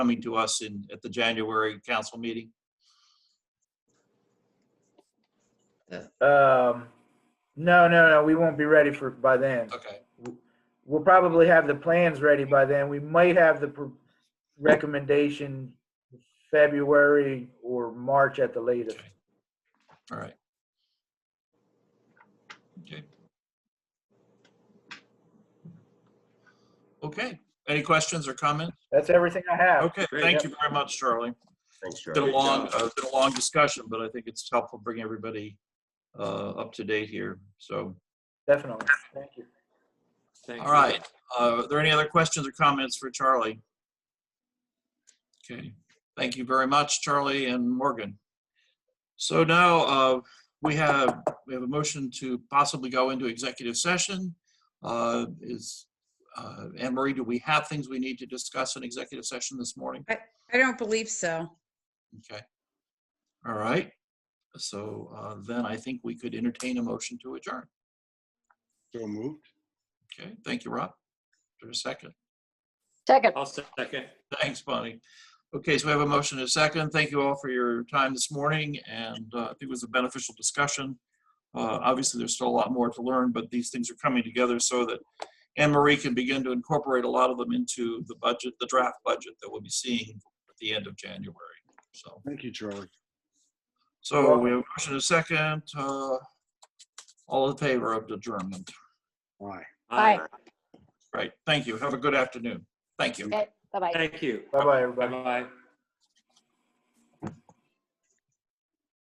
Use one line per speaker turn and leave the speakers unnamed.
coming to us in, at the January council meeting?
Um, no, no, no, we won't be ready for, by then.
Okay,
We'll probably have the plans ready by then. We might have the pr- recommendation February or March at the latest.
Okay. all right. Okay. Okay, any questions or comments?
That's everything I have.
Okay, thank you very much, Charlie.
Thanks,
It's been a
Charlie.
long, uh, it's been a long discussion, but I think it's helpful bringing everybody uh, up to date here, so.
Definitely. Thank you.
Thank
All
you.
right. Uh, Are there any other questions or comments for Charlie? Okay, thank you very much, Charlie and Morgan. So now uh, we have, we have a motion to possibly go into executive session. Uh, Is, uh, Anne Marie, do we have things we need to discuss in executive session this morning?
I don't believe so.
Okay. All right. So uh, then I think we could entertain a motion to adjourn.
So moved.
Okay, thank you, Rob. For a second.
Second.
I'll second.
Thanks, Bonnie. Okay, so we have a motion and a second. Thank you all for your time this morning, and uh, I think it was a beneficial discussion. Uh, Obviously, there's still a lot more to learn, but these things are coming together so that Anne Marie can begin to incorporate a lot of them into the budget, the draft budget that we'll be seeing at the end of January. So,
Thank you, Charlie.
so we have a motion and a second. uh, All in favor of adjournment.
Bye.
Aye.
Right, thank you. Have a good afternoon. Thank you.
Okay, bye-bye.
Thank you.
Bye-bye, everybody.
Bye-bye.